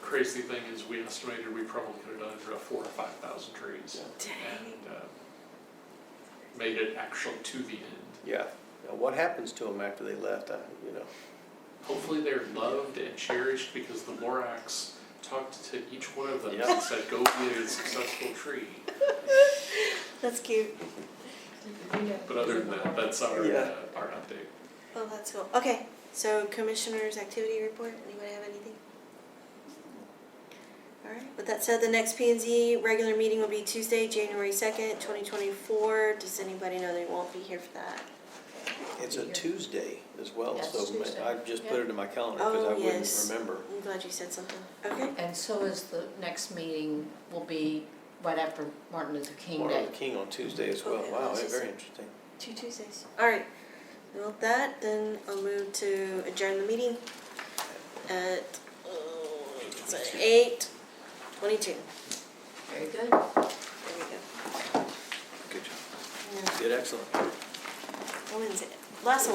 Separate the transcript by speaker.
Speaker 1: crazy thing is we estimated we probably could have done it for four or five thousand trees. And, uh, made it actual to the end.
Speaker 2: Yeah, now what happens to them after they left, I, you know?
Speaker 1: Hopefully they're loved and cherished because the Lorax talked to each one of them
Speaker 2: Yeah.
Speaker 1: and said, go be a successful tree.
Speaker 3: That's cute.
Speaker 1: But other than that, that's our, uh,
Speaker 2: Yeah.
Speaker 1: our update.
Speaker 3: Oh, that's cool. Okay, so commissioners' activity report, anybody have anything? All right, with that said, the next P and Z regular meeting will be Tuesday, January second, twenty twenty-four. Does anybody know they won't be here for that?
Speaker 2: It's a Tuesday as well,
Speaker 4: Yes,
Speaker 2: so ma-
Speaker 4: Tuesday.
Speaker 2: I just put it in my calendar
Speaker 3: Oh,
Speaker 2: because I
Speaker 3: yes.
Speaker 2: wouldn't remember.
Speaker 3: I'm glad you said something. Okay,
Speaker 4: And so is the next meeting will be right after Martin Luther King
Speaker 2: Martin
Speaker 4: Day.
Speaker 2: Luther King on Tuesday as well,
Speaker 3: Okay,
Speaker 2: wow,
Speaker 3: Oh, that's just-
Speaker 2: very interesting.
Speaker 3: two Tuesdays. All right, and with that, then I'll move to adjourn the meeting at, uh, eight twenty-two.
Speaker 4: Very
Speaker 3: There we
Speaker 4: good.
Speaker 3: go.
Speaker 2: Good job.
Speaker 3: And then
Speaker 2: Did excellent.
Speaker 3: When's it? Last